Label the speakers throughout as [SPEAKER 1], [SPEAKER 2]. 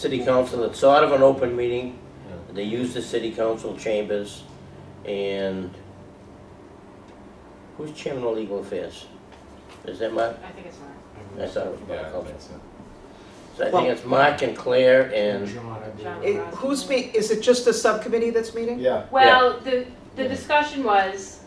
[SPEAKER 1] City council, it's sort of an open meeting. They use the city council chambers and who's chairman of legal affairs? Is that Mark?
[SPEAKER 2] I think it's Mark.
[SPEAKER 1] I thought it was
[SPEAKER 3] Yeah,
[SPEAKER 1] Mark also.
[SPEAKER 3] that's it.
[SPEAKER 1] So I
[SPEAKER 4] Well-
[SPEAKER 1] think it's Mark and Claire and,
[SPEAKER 5] John, I
[SPEAKER 2] John.
[SPEAKER 5] believe.
[SPEAKER 4] It- Who's me, is it just the subcommittee that's meeting?
[SPEAKER 3] Yeah,
[SPEAKER 2] Well, the, the discussion was,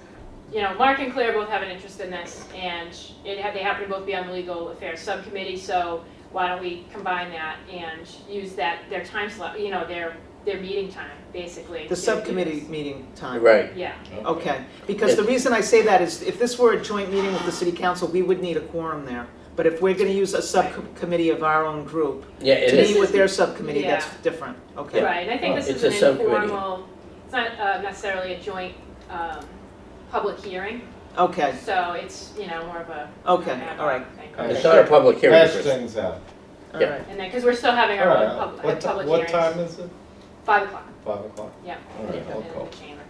[SPEAKER 2] you know, Mark and Claire both have an interest in this, and it had, they happen to both be on the legal affairs subcommittee, so why don't we combine that and use that, their time slot, you know, their, their meeting time, basically. to
[SPEAKER 4] The
[SPEAKER 2] do
[SPEAKER 4] subcommittee
[SPEAKER 2] this.
[SPEAKER 4] meeting time?
[SPEAKER 1] right,
[SPEAKER 2] Yeah,
[SPEAKER 4] Okay, because the reason I say that is if this were a joint meeting with the city council, we would need a quorum there. But if we're gonna use a subcommittee of our own group
[SPEAKER 1] yeah, it
[SPEAKER 4] to meet
[SPEAKER 1] is.
[SPEAKER 4] with their subcommittee, that's
[SPEAKER 2] Yeah.
[SPEAKER 4] different, okay?
[SPEAKER 2] right, and I think this
[SPEAKER 1] It's
[SPEAKER 2] is
[SPEAKER 1] a
[SPEAKER 2] an
[SPEAKER 1] subcommittee.
[SPEAKER 2] informal, it's not uh, necessarily a joint, um, public hearing,
[SPEAKER 4] Okay,
[SPEAKER 2] so it's, you know, more of a.
[SPEAKER 4] Okay,
[SPEAKER 2] an ad
[SPEAKER 4] all right.
[SPEAKER 2] hoc thing.
[SPEAKER 3] All right.
[SPEAKER 1] It's not a public hearing,
[SPEAKER 3] hash
[SPEAKER 1] Chris.
[SPEAKER 3] things out.
[SPEAKER 4] all
[SPEAKER 1] Yeah.
[SPEAKER 4] right.
[SPEAKER 2] And then, because we're still having
[SPEAKER 3] All
[SPEAKER 2] our
[SPEAKER 3] right,
[SPEAKER 2] own pub-
[SPEAKER 3] what ti-
[SPEAKER 2] public
[SPEAKER 3] what
[SPEAKER 2] hearings.
[SPEAKER 3] time is it?
[SPEAKER 2] Five o'clock,
[SPEAKER 3] Five o'clock?
[SPEAKER 2] yeah.
[SPEAKER 3] All right, I'll
[SPEAKER 2] in
[SPEAKER 3] call.
[SPEAKER 2] the chamber.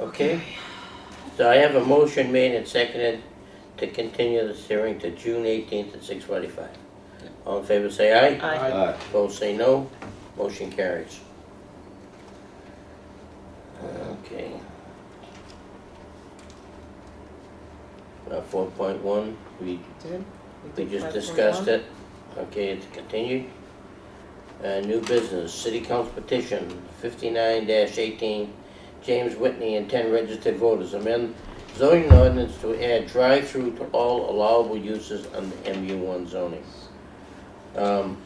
[SPEAKER 1] Okay. So I have a motion made and seconded to continue this hearing to June eighteenth at six forty-five. All in favor, say aye.
[SPEAKER 4] Aye.
[SPEAKER 5] Aye.
[SPEAKER 3] Aye.
[SPEAKER 1] Opposed, say no. Motion carries. Okay. Uh, four point one, we,
[SPEAKER 4] Did-
[SPEAKER 1] we
[SPEAKER 4] did
[SPEAKER 1] just
[SPEAKER 4] 5.1?
[SPEAKER 1] discussed it. Okay, it's continued. Uh, new business, city council petition fifty-nine eighteen, James Whitney and ten registered voters amend zoning ordinance to add drive-through to all allowable uses under MU one zoning. Um,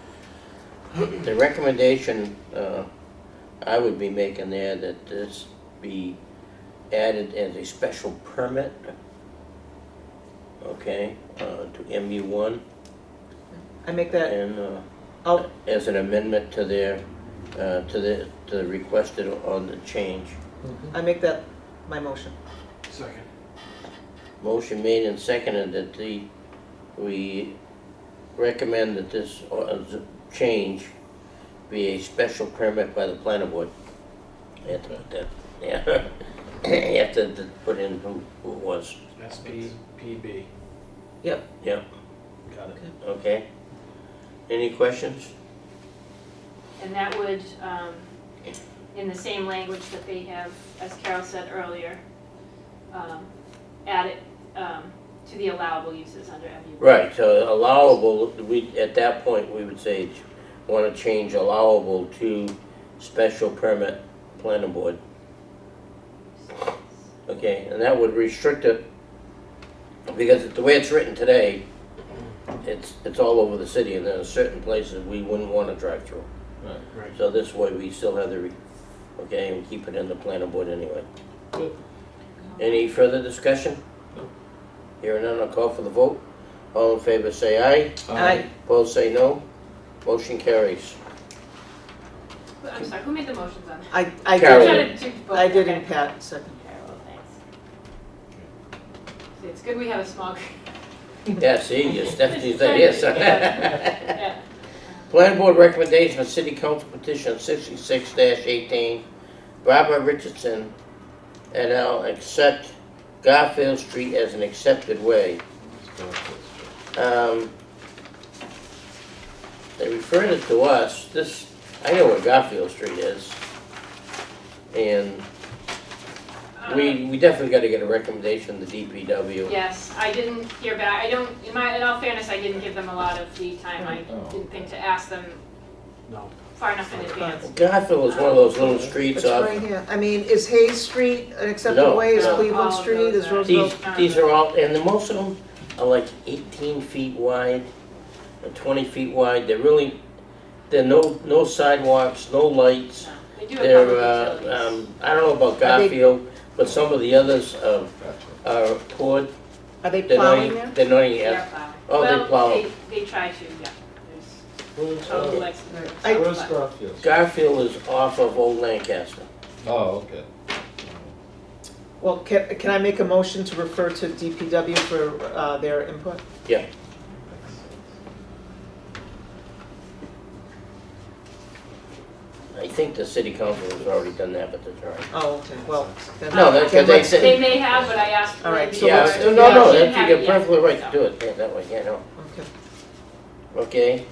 [SPEAKER 1] The recommendation, uh, I would be making there that this be added as a special permit, okay, uh, to MU one,
[SPEAKER 4] I make that,
[SPEAKER 1] and, uh,
[SPEAKER 4] I'll,
[SPEAKER 1] as an amendment to their, uh, to the, to the requested on the change.
[SPEAKER 4] I make that my motion.
[SPEAKER 5] Second.
[SPEAKER 1] Motion made and seconded that the, we recommend that this uh, z- change be a special permit by the planning board. You have to put that, yeah, you have to to put in who, who it was,
[SPEAKER 5] SBPB.
[SPEAKER 4] Yep.
[SPEAKER 1] Yep.
[SPEAKER 5] Got it.
[SPEAKER 1] okay? Any questions?
[SPEAKER 2] And that would, um, in the same language that they have, as Carol said earlier, um, add it, um, to the allowable uses under MU.
[SPEAKER 1] Right, so allowable, we, at that point, we would say, wanna change allowable to special permit planning board. Okay, and that would restrict it, because the way it's written today, it's, it's all over the city, and there are certain places we wouldn't wanna drive through.
[SPEAKER 3] Right.
[SPEAKER 5] Right.
[SPEAKER 1] So this way, we still have the, re- okay, and keep it in the planning board anyway.
[SPEAKER 3] Good.
[SPEAKER 1] Any further discussion?
[SPEAKER 3] No.
[SPEAKER 1] Hearing none, I'll call for the vote. All in favor, say aye.
[SPEAKER 4] Aye.
[SPEAKER 1] Opposed, say no. Motion carries.
[SPEAKER 2] I'm sorry, who made the motions on that?
[SPEAKER 4] I, I
[SPEAKER 1] Carol.
[SPEAKER 2] Trying
[SPEAKER 4] did,
[SPEAKER 2] to do both,
[SPEAKER 4] I did
[SPEAKER 2] okay.
[SPEAKER 4] in Pat, second.
[SPEAKER 2] Carol, thanks. See, it's good we have a small, group.
[SPEAKER 1] Yeah, see, your Stephanie's there, yes.
[SPEAKER 2] yeah,
[SPEAKER 1] Plan Board recommendation of City Council petition sixty-six eighteen, Barbara Richardson et al. accept Garfield Street as an accepted way.
[SPEAKER 3] Let's go with this.
[SPEAKER 1] Um, They referred it to us, this, I know where Garfield Street is. And
[SPEAKER 2] um,
[SPEAKER 1] we, we definitely gotta get a recommendation, from the DPW.
[SPEAKER 2] Yes, I didn't hear back, I don't, in my, in all fairness, I didn't give them a lot of lead time, I
[SPEAKER 3] Oh.
[SPEAKER 2] didn't think to ask them
[SPEAKER 5] No.
[SPEAKER 2] far enough in advance.
[SPEAKER 1] Garfield is one of those little
[SPEAKER 4] It's
[SPEAKER 1] streets off,
[SPEAKER 4] right here. I mean, is Hayes Street an
[SPEAKER 1] No.
[SPEAKER 4] acceptable way? Is
[SPEAKER 2] No.
[SPEAKER 4] Cleveland
[SPEAKER 2] All of
[SPEAKER 4] Street,
[SPEAKER 2] those
[SPEAKER 4] is
[SPEAKER 2] are-
[SPEAKER 1] these,
[SPEAKER 4] Roosevelt?
[SPEAKER 1] these are all, and the most of them are like eighteen feet wide, or twenty feet wide, they're really, there are no, no sidewalks, no lights.
[SPEAKER 2] No, They do have
[SPEAKER 1] They're,
[SPEAKER 2] public
[SPEAKER 1] uh,
[SPEAKER 2] utilities.
[SPEAKER 1] um, I don't know about
[SPEAKER 4] Are they-
[SPEAKER 1] Garfield, but some of the others are,
[SPEAKER 3] Gotcha.
[SPEAKER 1] are poured
[SPEAKER 4] Are they
[SPEAKER 1] They're not,
[SPEAKER 4] plowing there?
[SPEAKER 1] even- they're not even,
[SPEAKER 2] They're
[SPEAKER 1] yeah.
[SPEAKER 2] plowing.
[SPEAKER 1] Oh, they plow.
[SPEAKER 2] Well, they, they try to, yeah. There's-
[SPEAKER 3] Where's,
[SPEAKER 2] oh,
[SPEAKER 3] uh,
[SPEAKER 2] Lex-
[SPEAKER 4] I-
[SPEAKER 3] where's
[SPEAKER 2] but-
[SPEAKER 3] Garfield?
[SPEAKER 1] Garfield is off of Old Lancaster.
[SPEAKER 3] Oh, okay.
[SPEAKER 4] Well, can, can I make a motion to refer to DPW for uh, their input?
[SPEAKER 1] I think the city council has already done that, but that's all right.
[SPEAKER 4] Oh, okay, well, then.
[SPEAKER 1] No, that's
[SPEAKER 4] then
[SPEAKER 1] what they
[SPEAKER 4] let's-
[SPEAKER 1] said.
[SPEAKER 2] They may have, but I asked.
[SPEAKER 4] All right,
[SPEAKER 2] Wendy
[SPEAKER 4] so
[SPEAKER 1] Yeah,
[SPEAKER 4] let's-
[SPEAKER 2] for-
[SPEAKER 1] no, no,
[SPEAKER 2] she didn't
[SPEAKER 1] that-
[SPEAKER 2] have
[SPEAKER 1] you're
[SPEAKER 2] it yet,
[SPEAKER 1] perfectly right
[SPEAKER 2] so.
[SPEAKER 1] to do it that- that way, yeah, no.
[SPEAKER 4] Okay,
[SPEAKER 1] Okay,